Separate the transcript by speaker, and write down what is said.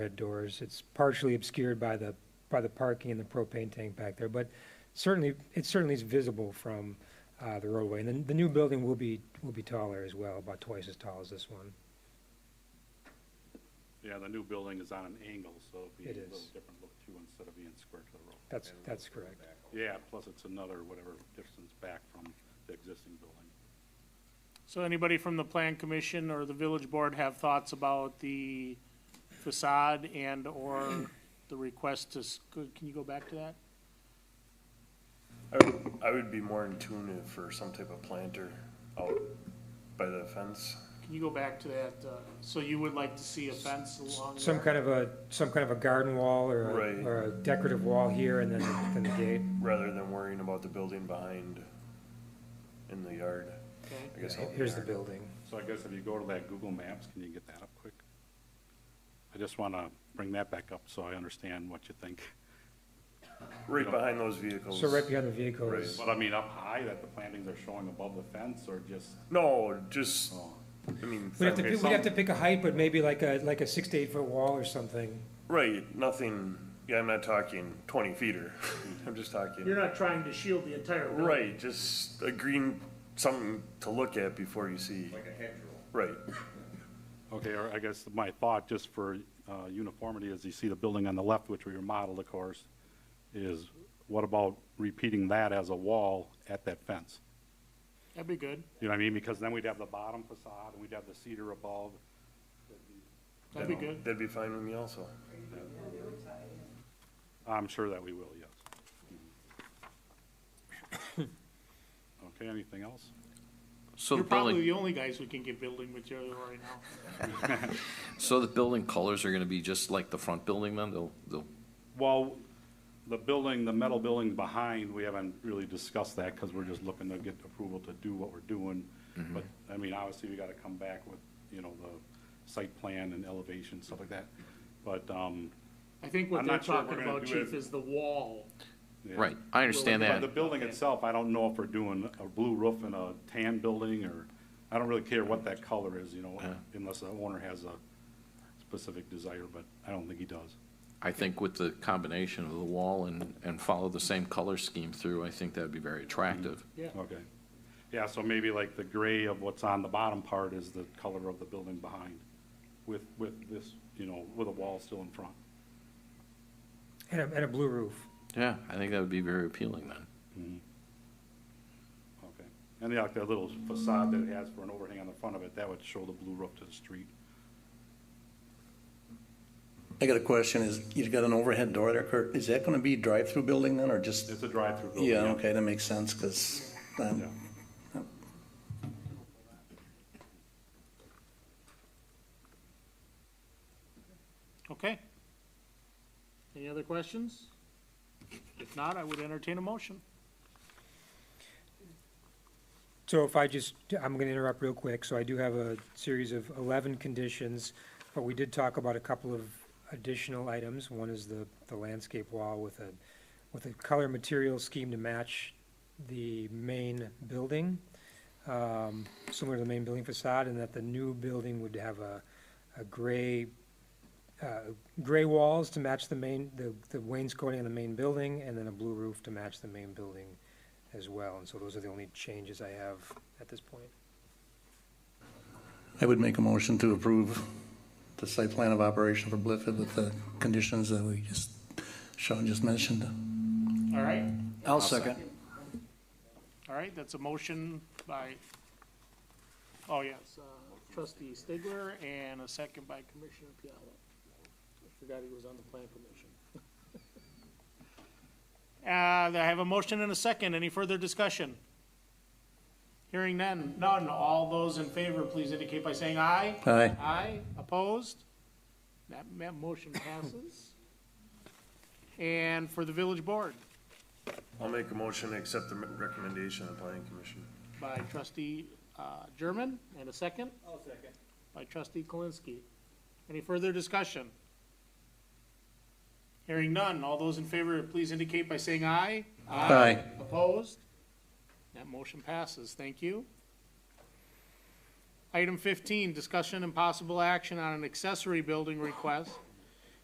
Speaker 1: overhead doors. It's partially obscured by the, by the parking and the propane tank back there, but certainly, it certainly is visible from uh, the roadway. And then the new building will be, will be taller as well, about twice as tall as this one.
Speaker 2: Yeah, the new building is on an angle, so it'll be
Speaker 1: It
Speaker 2: a little
Speaker 1: is.
Speaker 2: different look too, instead of being square to the road.
Speaker 1: That's, that's correct.
Speaker 2: Yeah, plus it's another whatever distance back from the existing building.
Speaker 3: So anybody from the plan commission or the village board have thoughts about the facade and/or the request to, s- could- can you go back to that?
Speaker 4: I would, I would be more in tune if for some type of planter out by the fence.
Speaker 3: Can you go back to that, uh, so you would like to see a fence along
Speaker 1: Some
Speaker 3: there?
Speaker 1: kind of a, some kind of a garden wall or, a-
Speaker 4: Right.
Speaker 1: or a decorative wall here and then, then the gate.
Speaker 4: rather than worrying about the building behind in the yard.
Speaker 3: Okay.
Speaker 4: I guess out in
Speaker 1: Here's the
Speaker 4: yard.
Speaker 1: building.
Speaker 2: So I guess if you go to that Google Maps, can you get that up quick? I just want to bring that back up so I understand what you think.
Speaker 4: Right behind those vehicles.
Speaker 1: So right behind the vehicle is,
Speaker 2: But I mean, up high that the plantings are showing above the fence or just,
Speaker 4: No, just,
Speaker 2: oh,
Speaker 4: I mean,
Speaker 1: we'd have to,
Speaker 2: Okay,
Speaker 1: we'd have to pick a height, but maybe like a, like a six to eight foot wall or something.
Speaker 4: right, nothing, yeah, I'm not talking twenty feet-er. I'm just
Speaker 3: You're
Speaker 4: talking,
Speaker 3: not trying to shield the entire building?
Speaker 4: right, just a green, something to look at before you see. Like a hedgerow. Right,
Speaker 2: okay, or I guess my thought just for uh, uniformity is you see the building on the left, which we remodeled, of course, is what about repeating that as a wall at that fence?
Speaker 3: That'd be good.
Speaker 2: You know what I mean? Because then we'd have the bottom facade and we'd have the cedar above.
Speaker 3: That'd be good.
Speaker 4: that'd be fine with me also.
Speaker 2: I'm sure that we will, yes. Okay, anything else?
Speaker 5: So the
Speaker 3: You're probably
Speaker 5: building,
Speaker 3: the only guys who can get building material right now.
Speaker 5: so the building colors are gonna be just like the front building then? They'll, they'll,
Speaker 2: Well, the building, the metal building behind, we haven't really discussed that because we're just looking to get approval to do what we're doing. But, I mean, obviously, we got to come back with, you know, the site plan and elevation, stuff like that. But, um,
Speaker 3: I think what
Speaker 2: I'm
Speaker 3: they're
Speaker 2: not sure if we're
Speaker 3: talking
Speaker 2: gonna
Speaker 3: about,
Speaker 2: do it.
Speaker 3: chief, is the wall.
Speaker 2: yeah.
Speaker 5: right, I understand
Speaker 2: But
Speaker 5: that.
Speaker 2: the building itself, I don't know if we're doing a blue roof and a tan building, or, I don't really care what that color is, you know,
Speaker 5: Yeah.
Speaker 2: unless the owner has a specific desire, but I don't think he does.
Speaker 5: I think with the combination of the wall and, and follow the same color scheme through, I think that'd be very attractive.
Speaker 3: Yeah,
Speaker 2: Okay. Yeah, so maybe like the gray of what's on the bottom part is the color of the building behind, with, with this, you know, with a wall still in front.
Speaker 1: And a, and a blue roof.
Speaker 5: Yeah, I think that would be very appealing then.
Speaker 2: Okay. And yeah, like that little facade that it has for an overhang on the front of it, that would show the blue roof to the street.
Speaker 6: I got a question, is, you've got an overhead door there, Kurt, is that gonna be drive-through building then, or just?
Speaker 2: It's a drive-through building.
Speaker 6: Yeah, okay, that makes sense, cause, um,
Speaker 2: Yeah.
Speaker 3: okay. Any other questions? If not, I would entertain a motion.
Speaker 1: So if I just, I'm going to interrupt real quick. So I do have a series of 11 conditions, but we did talk about a couple of additional items. One is the, the landscape wall with a, with a color material scheme to match the main building, um, similar to the main building facade, and that the new building would have a, a gray, uh, gray walls to match the main, the the wainscoting on the main building, and then a blue roof to match the main building as well, and so those are the only changes I have at this point.
Speaker 6: I would make a motion to approve the site plan of operation for Blifford with the conditions that we just, Sean just mentioned.
Speaker 3: All right,
Speaker 6: I'll second.
Speaker 3: all right, that's a motion by, oh yes, uh, trustee Stigler and a second by Commissioner Piala. I Forgot he was on the plan commission. Uh, I have a motion and a second. Any further discussion? Hearing none, none. All those in favor, please indicate by saying aye.
Speaker 6: Aye.
Speaker 3: Aye, opposed? That, that motion passes. And for the village board,
Speaker 4: I'll make a motion to accept the recommendation of the planning commission.
Speaker 3: by trustee, uh, German, and a 2nd I'll second. By trustee Kolinsky. Any further discussion? Hearing none, all those in favor, please indicate by saying aye.
Speaker 6: Aye.
Speaker 3: Opposed? That motion passes, thank you. Item fifteen, discussion and possible action on an accessory building request